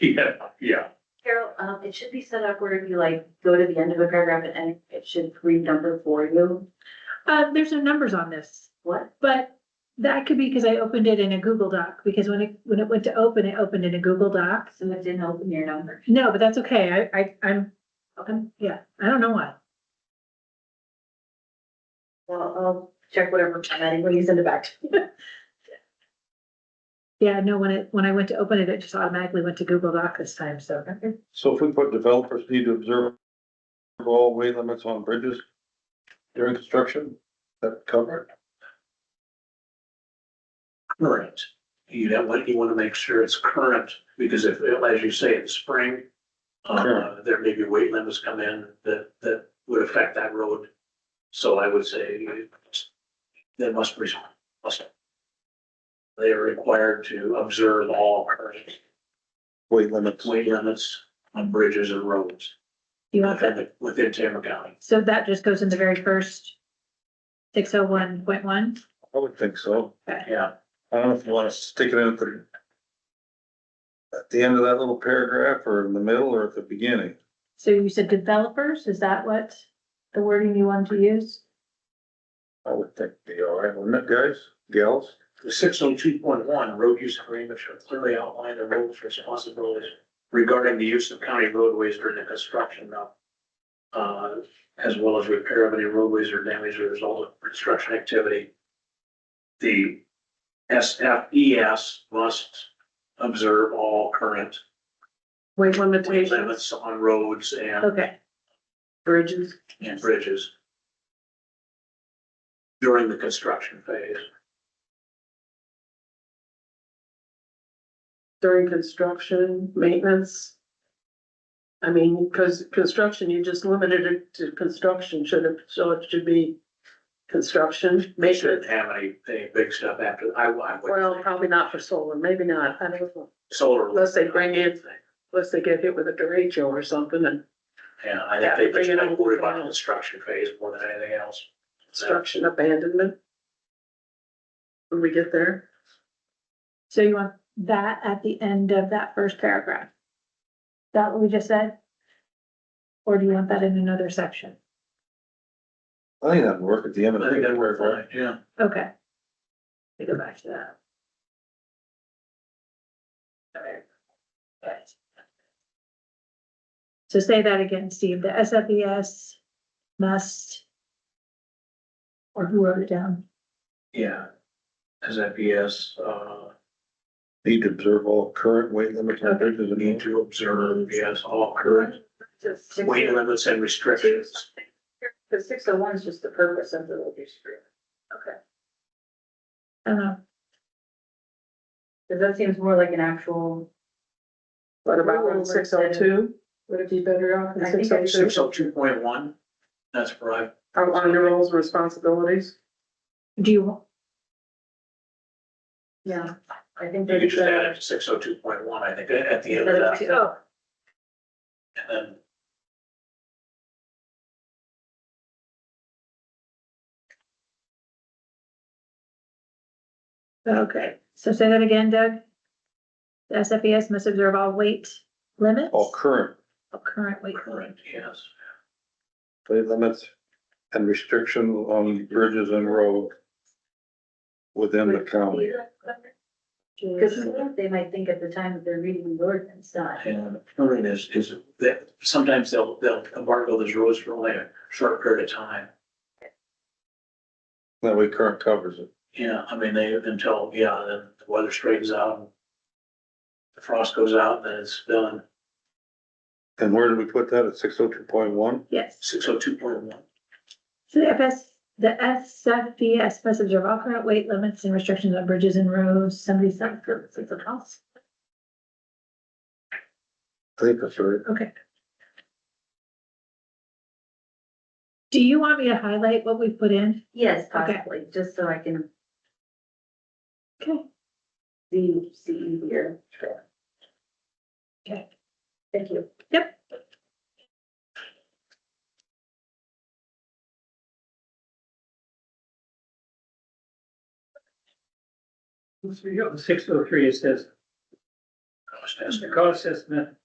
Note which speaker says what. Speaker 1: Yeah, yeah.
Speaker 2: Carol, um, it should be set up where if you like go to the end of a paragraph and end, it should read number for you.
Speaker 3: Uh, there's no numbers on this,
Speaker 2: What?
Speaker 3: but that could be because I opened it in a Google Doc, because when it, when it went to open, it opened in a Google Doc.
Speaker 2: So it didn't open your number.
Speaker 3: No, but that's okay. I, I, I'm,
Speaker 2: Okay.
Speaker 3: yeah, I don't know why.
Speaker 2: Well, I'll check whatever formatting when you send it back. to me.
Speaker 3: Yeah, no, when it, when I went to open it, it just automatically went to Google Doc this time, so.
Speaker 4: So if we put developers need to observe all weight limits on bridges during construction, that cover it?
Speaker 1: current. You have, like, you wanna make sure it's current, because if, as you say, in spring, uh,
Speaker 4: Sure.
Speaker 1: there may be weight limits come in that, that would affect that road. So I would say they must, be- must. They are required to observe all current
Speaker 4: weight limits.
Speaker 1: weight limits on bridges and roads
Speaker 3: You want that?
Speaker 1: within, within Tama County.
Speaker 3: So that just goes in the very first six oh one point one?
Speaker 4: I would think so.
Speaker 1: Yeah,
Speaker 4: I don't know if you wanna stick it in at the at the end of that little paragraph or in the middle or at the beginning.
Speaker 3: So you said developers, is that what the wording you wanted to use?
Speaker 4: I would think it'd be all right, wouldn't it, guys, gals?
Speaker 1: the six oh two point one, road use agreements should clearly outline the road's responsibilities regarding the use of county roadways during the construction of, uh, as well as repair of any roadways or damage as a result of construction activity. The SFES must observe all current
Speaker 2: Weight
Speaker 1: weight limits on roads and
Speaker 3: Okay,
Speaker 2: Bridges.
Speaker 1: and bridges during the construction phase.
Speaker 5: during construction, maintenance? I mean, because construction, you just limited it to construction, should it, so it should be construction,
Speaker 1: They shouldn't
Speaker 5: maintenance.
Speaker 1: have any, any big stuff after, I, I
Speaker 5: Well,
Speaker 1: would,
Speaker 5: probably not for solar, maybe not, I don't know,
Speaker 1: solar.
Speaker 5: unless they bring in- unless they get hit with a derecho or something and
Speaker 1: Yeah, I think they
Speaker 5: Bring it
Speaker 1: just
Speaker 5: over.
Speaker 1: worry about the construction phase more than anything else.
Speaker 5: construction abandonment. When we get there,
Speaker 3: so you want that at the end of that first paragraph? Is that what we just said? Or do you want that in another section?
Speaker 4: I think that'd work at the end of. the
Speaker 1: I think that worked
Speaker 4: paragraph.
Speaker 1: fine, yeah.
Speaker 3: Okay. Let me go back to that. Alright. Right. So say that again, Steve, the SFES must. Or who wrote it down?
Speaker 1: Yeah. As FPS, uh,
Speaker 4: Need to observe all current weight limits on bridges
Speaker 1: need
Speaker 4: and.
Speaker 1: to observe, yes, all current
Speaker 2: Just six-
Speaker 1: weight limits and restrictions.
Speaker 2: Cause six oh one is just the purpose of the road use agreement. Okay.
Speaker 3: I don't know,
Speaker 2: Cause that seems more like an actual,
Speaker 5: what about one six oh two,
Speaker 2: would it be better off? I think I-
Speaker 1: Six oh two point one, that's where I,
Speaker 5: outline the roles and responsibilities?
Speaker 3: do you, want?
Speaker 2: Yeah, I think
Speaker 1: you
Speaker 2: that
Speaker 1: could
Speaker 2: is
Speaker 1: just add
Speaker 2: better.
Speaker 1: it to six oh two point one, I think, at the end of that,
Speaker 3: oh,
Speaker 1: and then.
Speaker 3: okay, so say that again, Doug. The SFES must observe all weight limits?
Speaker 4: All current
Speaker 3: All current weight.
Speaker 1: Current, yes.
Speaker 4: weight limits and restriction on bridges and roads within the county.
Speaker 2: Cause they might think at the time that they're reading the ordinance, not.
Speaker 1: And current is, is that sometimes they'll, they'll embargo those roads for only a short period of time.
Speaker 4: That way current covers it.
Speaker 1: Yeah, I mean, they, until, yeah, then the weather straightens out. and The frost goes out, then it's done,
Speaker 4: And where did we put that? At six oh two point one?
Speaker 3: Yes.
Speaker 1: six oh two point one.
Speaker 3: So the FS, the SFDS must observe all current weight limits and restrictions on bridges and roads, somebody said for, for the house.
Speaker 4: I think that's right.
Speaker 3: Do you want me to highlight what we've put in?
Speaker 2: Yes,
Speaker 3: Okay.
Speaker 2: possibly, just so I can
Speaker 3: Okay.
Speaker 2: see, see easier.
Speaker 3: Okay.
Speaker 2: Thank you.
Speaker 6: Six oh three, it says,
Speaker 7: cost estimate.
Speaker 1: cost estimate